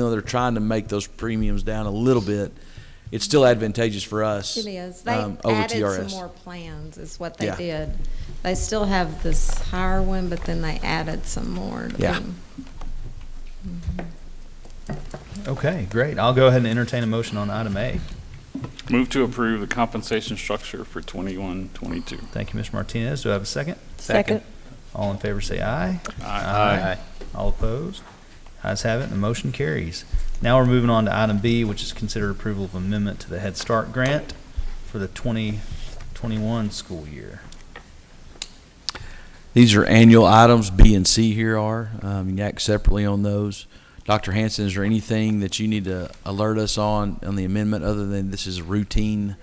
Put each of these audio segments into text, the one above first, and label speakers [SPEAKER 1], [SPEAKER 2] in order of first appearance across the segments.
[SPEAKER 1] know, they're trying to make those premiums down a little bit, it's still advantageous for us.
[SPEAKER 2] It is. They
[SPEAKER 1] um, over
[SPEAKER 2] added some
[SPEAKER 1] TRS.
[SPEAKER 2] more plans, is what they
[SPEAKER 1] Yeah.
[SPEAKER 2] did. They still have this higher one, but then they added some more. to
[SPEAKER 1] Yeah.
[SPEAKER 2] them.
[SPEAKER 3] Okay, great. I'll go ahead and entertain a motion on item A.
[SPEAKER 4] Move to approve the compensation structure for 21, 22.
[SPEAKER 3] Thank you, Mr. Martinez. Do I have a second?
[SPEAKER 5] Second.
[SPEAKER 3] All in favor say aye.
[SPEAKER 4] Aye.
[SPEAKER 3] All opposed? Ayes have it, and the motion carries. Now we're moving on to item B, which is consider approval of amendment to the Head Start grant for the 2021 school year.
[SPEAKER 1] These are annual items, B and C here are, um, you can act separately on those. Dr. Hanson, is there anything that you need to alert us on, on the amendment, other than this is routine?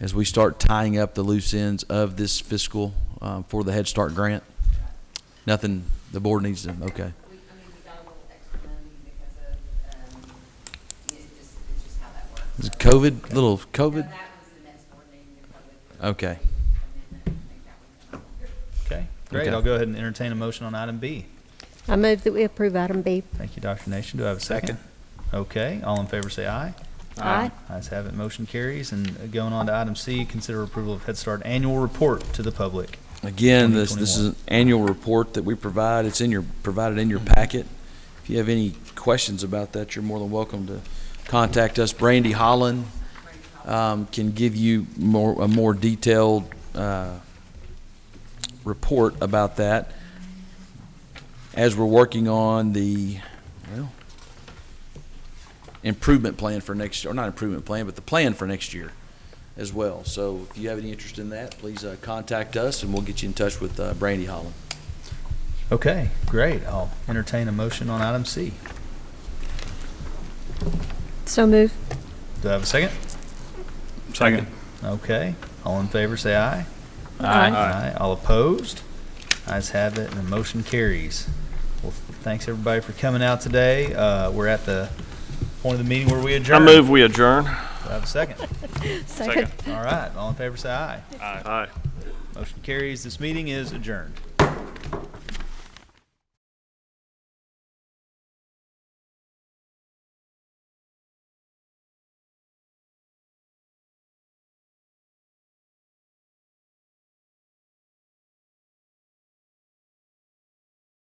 [SPEAKER 1] As we start tying up the loose ends of this fiscal, um, for the Head Start grant? Nothing, the board needs to, okay.
[SPEAKER 6] We, I mean, we got a little extra money because of, um, you know, just, it's just how that works.
[SPEAKER 1] Is it COVID, little
[SPEAKER 6] No,
[SPEAKER 1] COVID?
[SPEAKER 6] that was the next board meeting, the public.
[SPEAKER 1] Okay.
[SPEAKER 6] amendment. I think that one comes under.
[SPEAKER 3] Okay, great.
[SPEAKER 1] Okay.
[SPEAKER 3] I'll go ahead and entertain a motion on item B.
[SPEAKER 5] I move that we approve item B.
[SPEAKER 3] Thank you, Dr. Nation. Do I have a second? Okay, all in favor say aye. Ayes have it, motion carries. And going on to item C, consider approval of Head Start annual report to the public.
[SPEAKER 1] Again, this, this is
[SPEAKER 3] 2021.
[SPEAKER 1] an annual report that we provide. It's in your, provided in your packet. If you have any questions about that, you're more than welcome to contact us. Brandy Holland, um, can give you more, a more detailed, uh, report about that. As we're working on the, well, improvement plan for next, or not improvement plan, but the plan for next year as well. So if you have any interest in that, please uh, contact us, and we'll get you in touch with uh, Brandy Holland.
[SPEAKER 3] Okay, great. I'll entertain a motion on item C.
[SPEAKER 5] So move.
[SPEAKER 3] Do I have a second?
[SPEAKER 4] Second.
[SPEAKER 3] Okay, all in favor, say aye.
[SPEAKER 5] Aye.
[SPEAKER 3] All opposed? Ayes have it, and the motion carries. Well, thanks everybody for coming out today. Uh, we're at the point of the meeting where we
[SPEAKER 7] I
[SPEAKER 3] adjourn.
[SPEAKER 7] move we adjourn.
[SPEAKER 3] Do I have a second?
[SPEAKER 5] Second.
[SPEAKER 3] All right, all in favor, say aye.
[SPEAKER 7] Aye.
[SPEAKER 3] Motion carries. This meeting is adjourned.